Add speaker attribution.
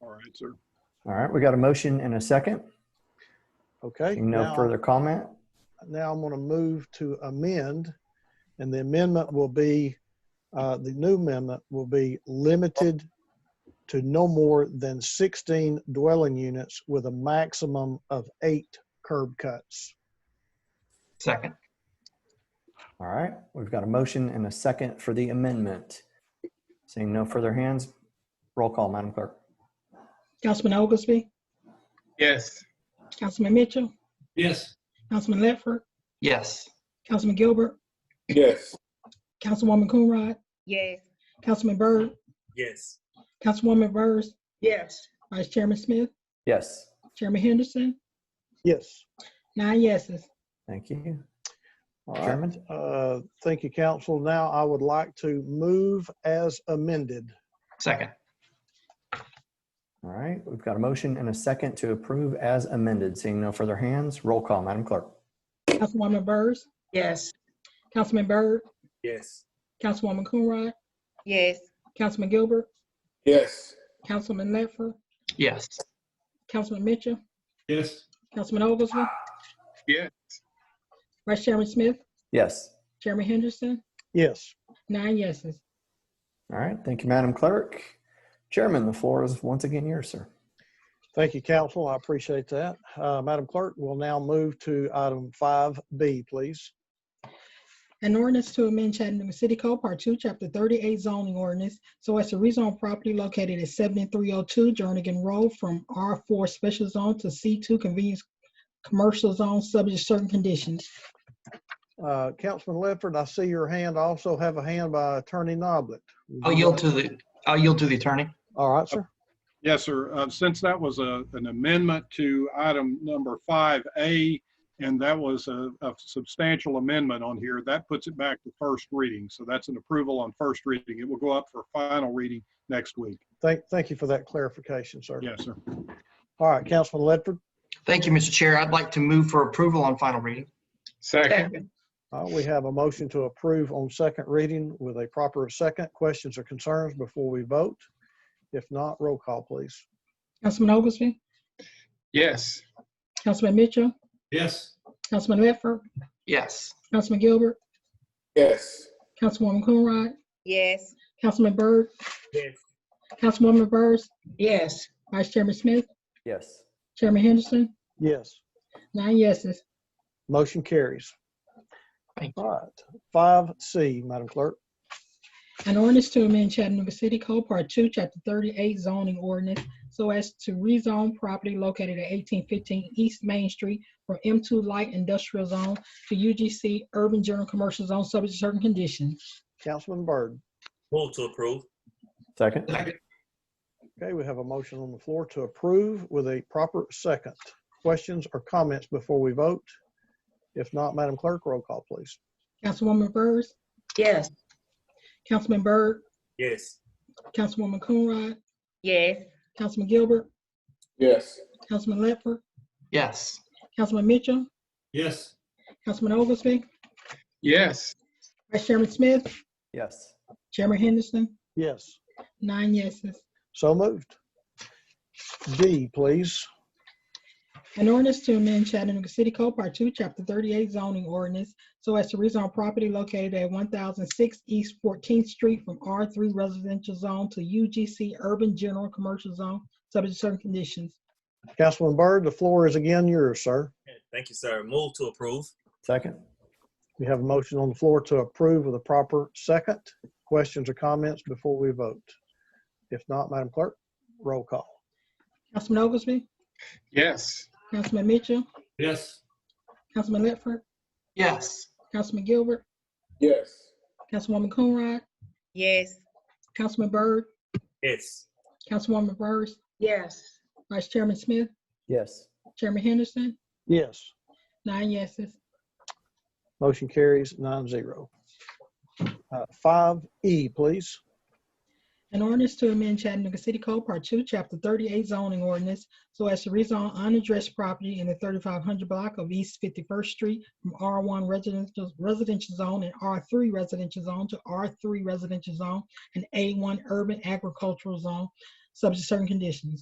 Speaker 1: All right, sir.
Speaker 2: All right, we got a motion and a second.
Speaker 3: Okay.
Speaker 2: No
Speaker 3: now-
Speaker 2: further comment.
Speaker 3: Now I'm going to move to amend, and the amendment will be, uh, the new amendment will be limited to no more than 16 dwelling units with a maximum of eight curb cuts.
Speaker 4: Second.
Speaker 2: All right, we've got a motion and a second for the amendment. Seeing no further hands, roll call, Madam Clerk.
Speaker 5: Councilman Oglesby,
Speaker 6: Yes.
Speaker 5: Councilman Mitchell,
Speaker 6: Yes.
Speaker 5: Councilman Ledford,
Speaker 4: Yes.
Speaker 5: Councilman Gilbert,
Speaker 6: Yes.
Speaker 5: Councilwoman Coonrod,
Speaker 7: Yes.
Speaker 5: Councilman Byrd,
Speaker 6: Yes.
Speaker 5: Councilwoman Byrd,
Speaker 7: Yes.
Speaker 5: Vice Chairman Smith,
Speaker 2: Yes,
Speaker 5: Chairman Henderson,
Speaker 3: Yes.
Speaker 5: nine yeses.
Speaker 2: thank you.
Speaker 3: All right.
Speaker 2: Chairman,
Speaker 3: Uh, Thank you, council. Now I would like to move as amended.
Speaker 4: Second.
Speaker 2: all right, we've got a motion and a second to approve as amended. Seeing no further hands, roll call, Madam Clerk.
Speaker 5: Councilwoman Byrd,
Speaker 7: Yes.
Speaker 5: Councilman Byrd,
Speaker 6: Yes.
Speaker 5: Councilwoman Coonrod,
Speaker 7: Yes.
Speaker 5: Councilman Gilbert,
Speaker 6: Yes.
Speaker 5: Councilman Ledford,
Speaker 4: Yes.
Speaker 5: Councilman Mitchell,
Speaker 6: Yes.
Speaker 5: Councilman Oglesby.
Speaker 6: Yes.
Speaker 5: Vice Chairman Smith,
Speaker 2: Yes,
Speaker 5: Chairman Henderson,
Speaker 3: Yes.
Speaker 5: nine yeses.
Speaker 2: all right, thank you, Madam Clerk. Chairman, the floor is once again yours, sir.
Speaker 3: Thank you, council. I appreciate that. Uh, Madam Clerk, we'll now move to item 5B, please.
Speaker 5: An ordinance to amend Chattanooga City Code, Part Two, Chapter Thirty-eight zoning ordinance, so as to rezone property located at seventy-three oh two Jernigan Road from R four special zone to C two convenience commercial zone, subject to certain conditions.
Speaker 3: Uh, Councilman Ledford, I see your hand. I also have a hand by Attorney Noblet.
Speaker 4: I'll yield to the, I'll yield to the attorney.
Speaker 3: All right, sir.
Speaker 1: Yes, sir. Uh, Since that was a, an amendment to item number 5A, and that was a, a substantial amendment on here, that puts it back to first reading. So that's an approval on first reading. It will go up for final reading next week.
Speaker 3: Thank, thank you for that clarification, sir.
Speaker 1: Yes, sir.
Speaker 3: All right, Councilman Ledford,
Speaker 4: Thank you, Mr. Chair. I'd like to move for approval on final reading.
Speaker 6: Second.
Speaker 3: uh, we have a motion to approve on second reading with a proper second. Questions or concerns before we vote? If not, roll call, please.
Speaker 5: Councilman Oglesby,
Speaker 6: Yes.
Speaker 5: Councilman Mitchell,
Speaker 6: Yes.
Speaker 5: Councilman Ledford,
Speaker 4: Yes.
Speaker 5: Councilman Gilbert,
Speaker 6: Yes.
Speaker 5: Councilwoman Coonrod,
Speaker 7: Yes.
Speaker 5: Councilman Byrd,
Speaker 6: Yes.
Speaker 5: Councilwoman Byrd,
Speaker 7: Yes.
Speaker 5: Vice Chairman Smith,
Speaker 2: Yes,
Speaker 5: Chairman Henderson,
Speaker 3: Yes.
Speaker 5: nine yeses.
Speaker 3: Motion carries.
Speaker 4: Thank
Speaker 3: All right, five C, Madam Clerk.
Speaker 5: An ordinance to amend Chattanooga City Code Part Two, Chapter Thirty-eight zoning ordinance so as to rezone property located at eighteen fifteen East Main Street from M two Light Industrial Zone to UGC Urban General Commercial Zone, subject to certain conditions.
Speaker 3: Councilman Byrd.
Speaker 6: Move to approve.
Speaker 2: second.
Speaker 4: Second.
Speaker 3: Okay, we have a motion on the floor to approve with a proper second. Questions or comments before we vote? If not, Madam Clerk, roll call, please.
Speaker 5: Councilwoman Byrd,
Speaker 7: Yes.
Speaker 5: Councilman Byrd,
Speaker 6: Yes.
Speaker 5: Councilwoman Coonrod,
Speaker 7: Yes.
Speaker 5: Councilman Gilbert,
Speaker 6: Yes.
Speaker 5: Councilman Ledford,
Speaker 4: Yes.
Speaker 5: Councilman Mitchell,
Speaker 6: Yes.
Speaker 5: Councilman Oglesby,
Speaker 6: Yes.
Speaker 5: Vice Chairman Smith,
Speaker 2: Yes,
Speaker 5: Chairman Henderson,
Speaker 3: Yes,
Speaker 5: nine yeses.
Speaker 3: so moved. D, please.
Speaker 5: An ordinance to amend Chattanooga City Code Part Two, Chapter Thirty-eight zoning ordinance so as to rezone property located at one thousand six East Fourteenth Street from R three residential zone to UGC Urban General Commercial Zone, subject to certain conditions.
Speaker 3: Councilman Byrd, the floor is again yours, sir.
Speaker 6: Thank you, sir. Move to approve.
Speaker 2: second.
Speaker 3: We have a motion on the floor to approve with a proper second. Questions or comments before we vote? If not, Madam Clerk, roll call.
Speaker 5: Councilman Oglesby,
Speaker 6: Yes.
Speaker 5: Councilman Mitchell,
Speaker 6: Yes.
Speaker 5: Councilman Ledford,
Speaker 4: Yes.
Speaker 5: Councilman Gilbert,
Speaker 6: Yes.
Speaker 5: Councilwoman Coonrod,
Speaker 7: Yes.
Speaker 5: Councilman Byrd,
Speaker 6: Yes.
Speaker 5: Councilwoman Byrd,
Speaker 7: Yes.
Speaker 5: Vice Chairman Smith,
Speaker 2: Yes,
Speaker 5: Chairman Henderson,
Speaker 3: Yes,
Speaker 5: nine yeses.
Speaker 3: motion carries nine zero. Uh, Five E, please.
Speaker 5: An ordinance to amend Chattanooga City Code Part Two, Chapter Thirty-eight zoning ordinance so as to rezone unaddressed property in the thirty-five hundred block of East Fifty-first Street from R one residential, residential zone and R three residential zone to R three residential zone and A one urban agricultural zone, subject to certain conditions.